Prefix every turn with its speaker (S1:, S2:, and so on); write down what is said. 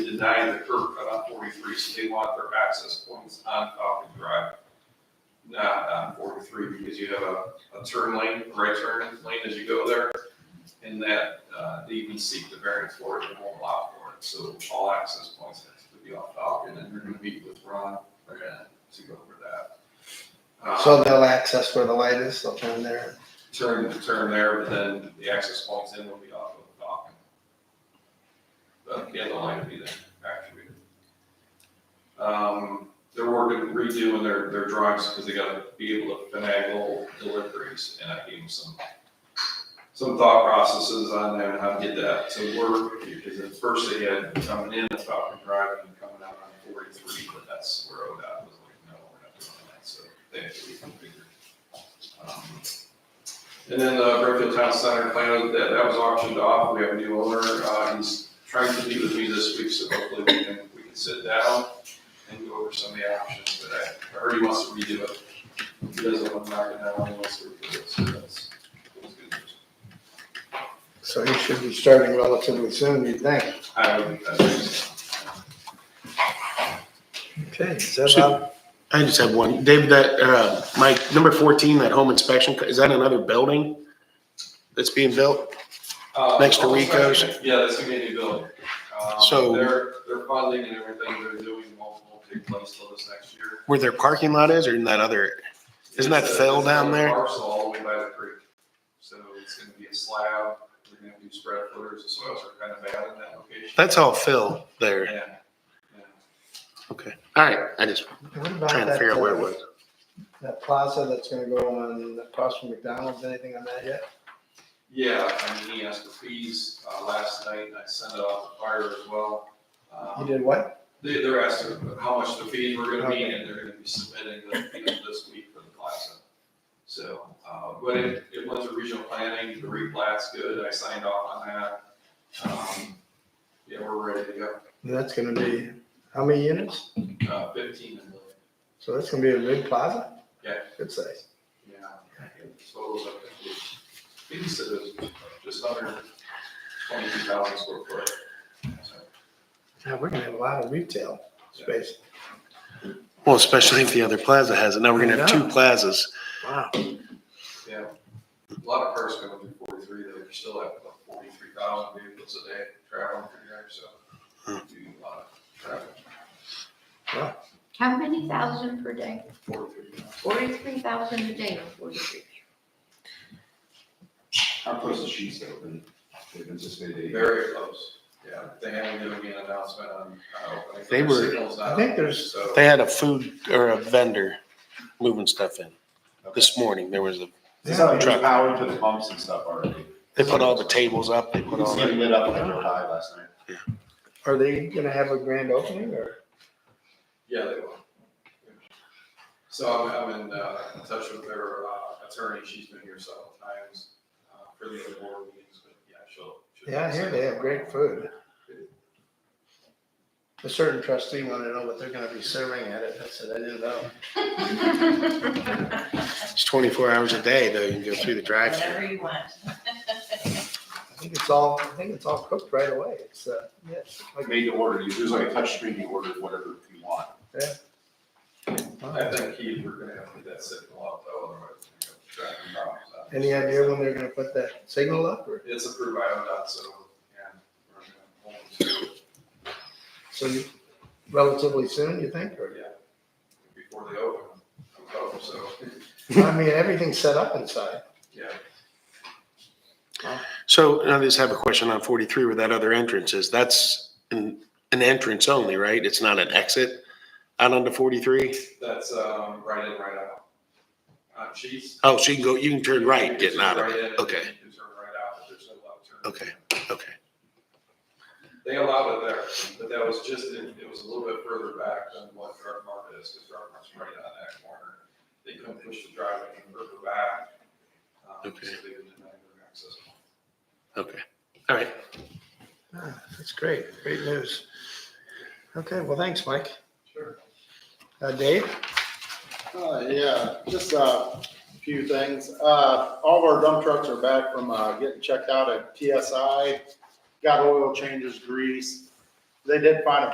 S1: denying the curb cut on forty-three, so they want their access points on Falcon Drive. Not on forty-three, because you have a, a turn lane, a right turn lane as you go there. And that, uh, they even seek the variance for it, they won't allow for it, so all access points have to be off Falcon, and they're gonna meet with Ron, they're gonna, to go over that. Uh,
S2: So they'll access where the light is, they'll turn there.
S1: turn, turn there, but then the access points in will be off of Falcon. But the other line would be then activated. Um, they're working, redoing their, their drives because they gotta be able to finagle deliveries, and I gave them some, some thought processes on that, and how to get that to work, because at first they had coming in at Falcon Drive and coming out on forty-three, but that's where ODOT was like, no, we're not doing that, so they had to reconfigure. Um, and then the Brookfield Town Center plan, that, that was auctioned off, we have a new owner, uh, he's trying to meet with me this week, so hopefully we can, we can sit down and go over some of the options, but I, I heard he wants to redo it. He doesn't want to knock it down, he wants to redo it, so that's, that's good.
S2: So he should be starting relatively soon, you'd think.
S1: I would, I think,
S2: Okay, is
S3: that about- I just have one. David, that, or, uh, Mike, number fourteen, that home inspection, is that another building that's being built?
S1: uh,
S3: Next to Rico's?
S1: Yeah, that's gonna be a new building. Um,
S3: So-
S1: Their, their funding and everything they're doing won't, won't take place till this next year.
S3: Where their parking lot is or in that other? Isn't that
S1: It's a-
S3: fill
S1: it's
S3: down
S1: another
S3: there?
S1: Parcel all the way by the creek. So it's gonna be a slab, they're gonna do spread footers, the soils are kind of bad in that location.
S3: That's all fill there.
S1: Yeah. yeah.
S3: Okay. All right. I just
S2: What about
S3: trying to figure out where it
S2: that,
S3: was.
S2: uh, that plaza that's gonna go on across from McDonald's, anything on that yet?
S1: Yeah, I mean, he asked for fees, uh, last night, and I sent it off to fire as well.
S2: You
S1: Um,
S2: did what?
S1: they, they're asking how much the fees were gonna be,
S2: Okay.
S1: and they're gonna be submitting the fees this week for the plaza. So, uh, but it, it went to regional planning, the replat's good, I signed off on that. Um, yeah, we're ready to go.
S2: And That's gonna be, how many units?
S1: Uh, fifteen, I believe.
S2: So that's gonna be a big plaza?
S1: Yeah.
S2: Good size.
S1: Yeah. So it was up to, I think he said it was just under twenty-two thousand square foot. So,
S2: Yeah, we're gonna have a lot of retail space.
S3: Well, especially if the other plaza has it. Now we're gonna have two
S2: Yeah.
S3: plazas.
S2: Wow.
S1: Yeah, a lot of cars coming through forty-three, though, you still have about forty-three thousand vehicles a day traveling through there, so. Do a lot of travel,
S4: How many thousand per day?
S1: forty-three thousand.
S4: Forty-three thousand a day or forty-three?
S5: How close the sheets open? They've anticipated.
S1: Very close, yeah, they haven't given me an announcement on, uh, opening.
S3: They were-
S1: Signal's not
S2: I think
S1: up,
S2: there's-
S1: So.
S3: They had a food or a vendor moving stuff in. This morning, there was a,
S5: It's not
S3: Truck.
S5: like power to the pumps and stuff already.
S3: they put all the tables up, they
S5: You
S3: put
S5: can
S3: all
S5: see them
S3: the
S5: lit up when I drove by last night.
S2: Are they gonna have a grand opening or?
S1: Yeah, they will. So I'm, I'm in, uh, touch with their, uh, attorney, she's been here several times, uh, for the other board meetings, but yeah, she'll. she'll-
S2: Yeah, I hear they have great food. A certain trustee wanted to know what they're gonna be serving at it. I said, I didn't know.
S3: it's twenty-four hours a day though. You can go through the drive-through.
S6: Whatever you want.
S2: I think it's all, I think it's all cooked right away. It's, uh, yeah, it's
S5: Like
S2: like-
S5: made to order. You- There's like a touch screen, you order whatever you want.
S1: I think he, we're gonna have to get that signal up though, otherwise we're gonna have traffic problems. out.
S2: Any idea when they're gonna put that signal up or,
S1: It's approved by ODOT, so, yeah. we're gonna hold them to it,
S2: so you- relatively soon, you think?
S1: but
S2: Or,
S1: yeah, Before they open, I'm hoping, so,
S2: I mean, everything's set up inside.
S1: yeah.
S3: So I just have a question on forty-three where that other entrance is. That's an, an entrance only, right? It's not an exit out onto forty-three?
S1: That's, um, right in, right out. Uh, she's.
S3: Oh, so you can go, you can turn right
S1: You can
S3: getting out of
S1: turn
S3: it.
S1: right in,
S3: Okay,
S1: you can Turn right out, but there's no left turn.
S3: okay, okay.
S1: They allowed it there, but that was just, it it was a little bit further back than what Dark Market is, because Dark Market's right on that corner. They couldn't push the driveway any further back. um,
S3: Okay.
S1: So they didn't have their access.
S3: Okay, all right.
S2: Ah, That's great, great news. Okay, well, thanks, Mike.
S1: Sure.
S2: Uh, Dave?
S7: Uh, yeah, just uh, a few things. Uh, all of our dump trucks are back from, uh, getting checked out at PSI. Got oil changes, grease. They did find a